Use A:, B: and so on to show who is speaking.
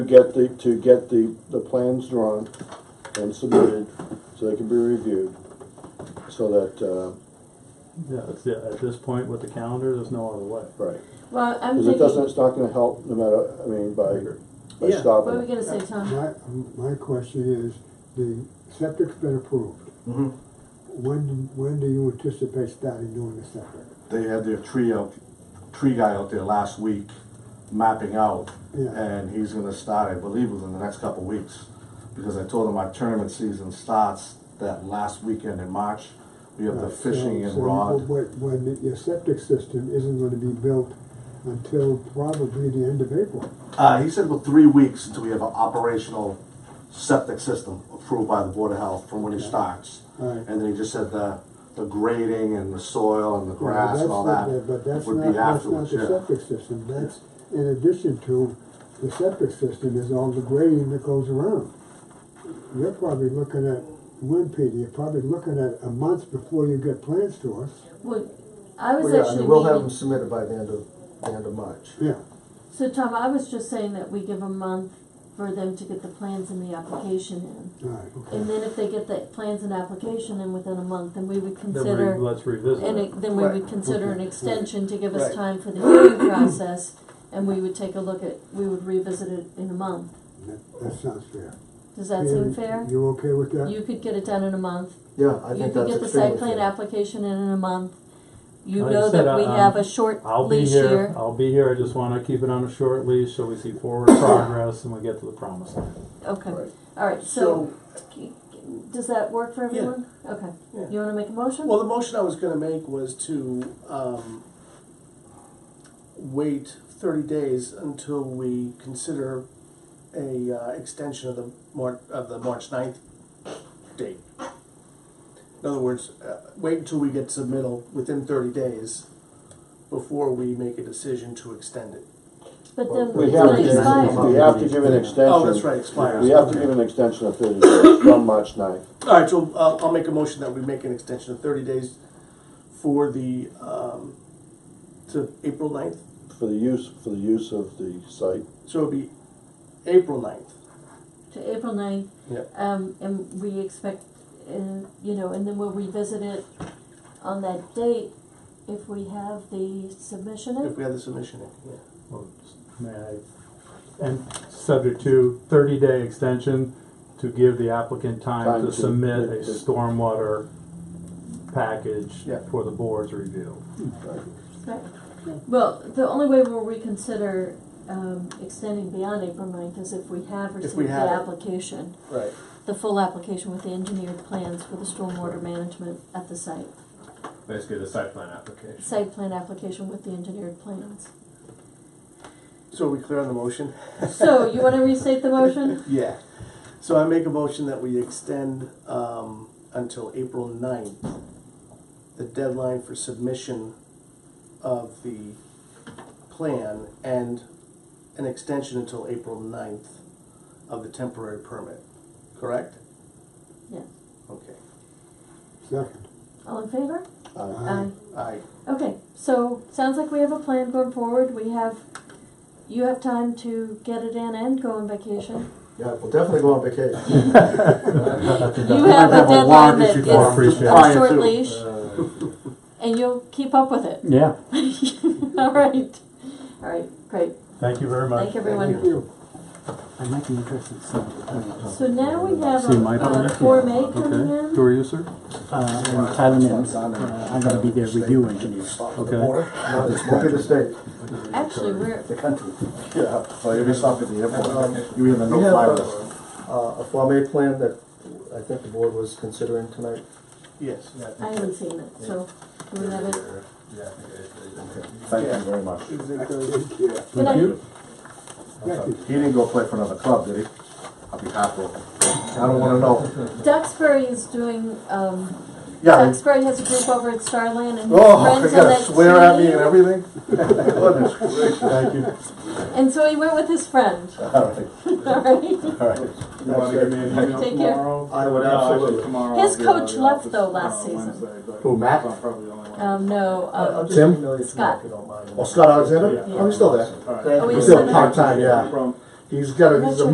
A: to get the, to get the, the plans drawn and submitted, so they can be reviewed, so that, uh,
B: Yeah, that's it. At this point with the calendar, there's no other way.
A: right.
C: Well, I'm
A: Because it doesn't,
C: thinking,
A: it's not gonna help, no matter, I mean, by, by
D: Yeah.
C: what are we
A: stopping.
C: gonna say, Tom?
E: My, my question is, the septic's been approved.
F: Mm-hmm.
E: When, do- when do you anticipate starting doing the septic?
F: They had their tree out, tree guy out there last week mapping out.
E: Yeah.
F: And he's gonna start, I believe, within the next couple of weeks. Because I told him our tournament season starts that last weekend in March. We have the
E: Right, Uh, so-
F: fishing and
E: so
F: rod.
E: When, when the- your septic system isn't gonna be built until probably the end of April.
F: Uh, he said about three weeks until we have an operational septic system approved by the Board of Health from when he starts.
E: Alright.
F: And then he just said the, the grading and the soil and the
E: Yeah, but
F: grass
E: that's
F: and all
E: not the-
F: that
E: But that's
F: would
E: not,
F: be
E: that's not
F: afterwards,
E: the
F: yeah.
E: septic system, that's, in addition to, the septic system is all the grading that goes around. You're probably looking at, when, Peter, you're probably looking at a month before you get plans to us,
C: Well, I was
G: Well, yeah, I
C: actually
G: mean, we'll have them
C: meaning,
G: submitted by the end of, the end of March.
E: yeah.
C: so Tom, I was just saying that we give a month for them to get the plans and the application
E: All right,
C: in. And
E: okay.
C: then if they get the plans and application in within a month, then we would
B: Then
C: consider,
B: re- let's revisit
C: and
B: it.
C: it- then we
G: Right.
C: would consider an
E: Okay.
C: extension to give us
G: Right.
C: time for the hearing process. And we would take a look at, we would revisit it in a month.
E: That, that sounds fair.
C: Does that seem
E: Peter,
C: fair?
E: You okay with that?
C: You could get it done in a month.
G: Yeah, I
C: You
G: think
C: could
G: that's
C: get the
G: extremely
C: site plan
G: fair.
C: application in in a month. You
B: Like I
C: know
B: said,
C: that we
B: I-
C: have
B: I'm-
C: a short
B: I'll be
C: leash
B: here,
C: here.
B: I'll be here. I just wanna keep it on a short leash so we see forward progress and we get to the promised land.
C: Okay,
G: Right.
C: all right, so, c- c- does that work for
H: Yeah.
C: everyone? Okay,
H: Yeah.
C: you wanna make a motion?
H: Well, the motion I was gonna make was to, um, wait thirty days until we consider a, uh, extension of the Mar- of the March ninth date. In other words, uh, wait until we get submittal within thirty days before we make a decision to extend it.
C: But then
A: We
C: it's
A: have
C: gonna
A: to, give-
C: expire.
A: we have to give an extension.
H: Oh, that's right, expires.
A: We have to give an extension of thirty days from March ninth.
H: All right, so I'll, I'll make a motion that we make an extension of thirty days for the, um, to April ninth.
A: for the use, for the use of the site.
H: So it'll be April ninth.
C: To April ninth,
H: Yeah.
C: um, and we expect, uh, you know, and then we'll revisit it on that date if we have the submission in.
H: If we have the submission in, yeah.
B: Well, May I, and subject to thirty-day extension to give the applicant
A: Time
B: time to
A: to-
B: submit a stormwater package
H: Yeah.
B: for the board's review.
C: Right. Well, the only way we'll reconsider, um, extending beyond April ninth is if we have
H: If
C: received
H: we
C: the
H: have it.
C: application,
H: Right.
C: the full application with the engineered plans for the stormwater management at the site.
I: Basically, the site plan application.
C: Site plan application with the engineered plans.
H: So are we clear on the motion?
C: So, you wanna restate the motion?
H: Yeah. So I make a motion that we extend um, until April 9th, the deadline for submission of the plan and an extension until April 9th of the temporary permit, correct?
C: Yeah.
H: Okay.
E: Second.
C: All in favor?
A: Uh,
E: Aye.
H: Aye.
C: Okay, so, sounds like we have a plan going forward, we have, you have time to get it in and go on vacation.
G: Yeah, we'll definitely go on vacation.
C: You have a
F: have a
C: deadline
F: warrant
C: that
F: issued for
C: is
F: appreciation.
C: a
F: Prior
C: short
F: to.
C: leash,
G: Uh,
C: and you'll keep up with it.
B: Yeah,
C: All right, all right, great,
B: thank you very much.
C: thank everyone.
E: Thank you.
D: I might be interested in some of the plans.
C: So now we have
B: See my
C: a
B: plan?
C: Form A coming
B: Okay, who
C: in,
B: are you, sir?
D: Uh, and Tyler Nims, uh, I'm gonna be their review engineer.
B: Okay,
G: Not this one, the state,
C: actually, we're,
G: the country.
F: Yeah, so you'll be stopped at the
G: Um,
F: airport, you're in the
G: We have
F: no-fly list.
G: a, uh, a Form A plan that I think the board was considering tonight.
H: Yes.
C: I haven't seen it, so, do we have it?
I: Yeah, I think it is.
F: Thank you very much.
H: Is it the-
C: Good night.
B: thank you.
E: Becky.
F: He didn't go play for another club, did he? I'll be heartbroken. I don't wanna know.
C: Duxbury is doing, um,
F: Yeah,
C: Duxbury has a group over at Starland and his
F: oh,
C: friends
F: they
C: on
F: gotta
C: that
F: swear at me
C: team.
F: and everything? Goodness gracious. Thank you.
C: And so he went with his friend,
F: All right,
C: alright?
F: all right.
I: You wanna give me an email
C: Take care.
I: tomorrow?
G: I would
I: No, actually,
G: absolutely.
I: tomorrow
C: His
I: I'll be out of
C: coach
I: the
C: left,
I: office,
C: though, last
I: uh,
C: season.
I: Wednesday, but
G: Who, Matt?
I: I'm probably the only one.
C: Um, no,
G: I'll
C: uh,
G: just email you
C: Scott.
G: tonight if you don't mind.
F: Oh, Scott Alexander?
C: Yeah.
G: Oh, he's still there.
I: All right.
C: oh, he's
G: He's still
C: still there.
G: part-time, yeah.
I: From
A: he's got, a- he's a